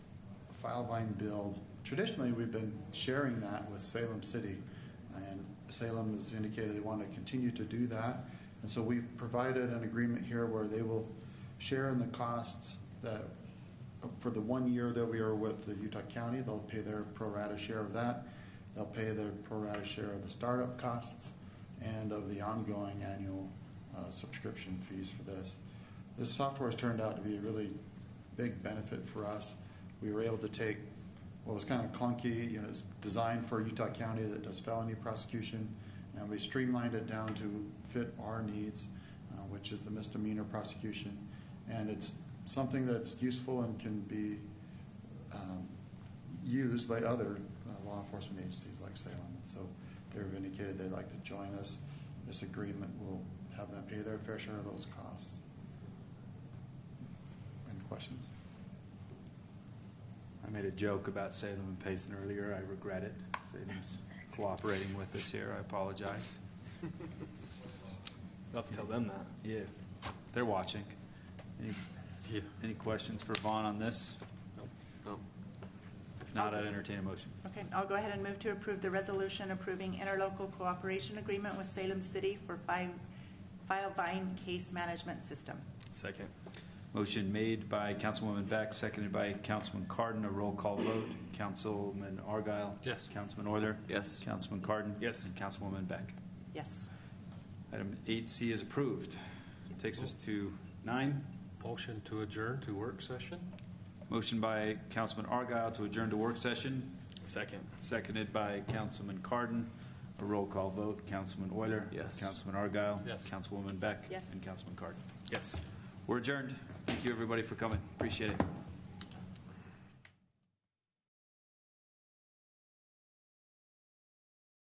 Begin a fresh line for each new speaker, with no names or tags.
file line build. Traditionally, we've been sharing that with Salem City, and Salem has indicated they want to continue to do that. And so we've provided an agreement here where they will share in the costs that, for the one year that we are with the Utah County, they'll pay their pro rata share of that. They'll pay their pro rata share of the startup costs and of the ongoing annual uh, subscription fees for this. This software has turned out to be a really big benefit for us. We were able to take what was kind of clunky, you know, it's designed for Utah County that does felony prosecution, and we streamlined it down to fit our needs, uh, which is the misdemeanor prosecution. And it's something that's useful and can be um, used by other uh, law enforcement agencies like Salem. And so they've indicated they'd like to join us. This agreement will have them pay their fair share of those costs. Any questions?
I made a joke about Salem and Payson earlier. I regret it. Salem's cooperating with us here. I apologize.
I'll have to tell them that.
Yeah, they're watching. Any,
Yeah.
any questions for Vaughn on this?
No.
If not, I'd entertain a motion.
Okay, I'll go ahead and move to approve the resolution approving interlocal cooperation agreement with Salem City for fi- File Vine Case Management System.
Second.
Motion made by Councilwoman Beck, seconded by Councilman Cardon. A roll call vote. Councilman Argyle.
Yes.
Councilman Euler.
Yes.
Councilman Cardon.
Yes.
And Councilwoman Beck.
Yes.
Item 8C is approved. Takes us to nine.
Motion to adjourn to work session?
Motion by Councilman Argyle to adjourn to work session.
Second.
Seconded by Councilman Cardon. A roll call vote. Councilman Euler.
Yes.
Councilman Argyle.
Yes.
Councilwoman Beck.
Yes.
And Councilman Cardon.
Yes.
We're adjourned. Thank you, everybody, for coming. Appreciate it.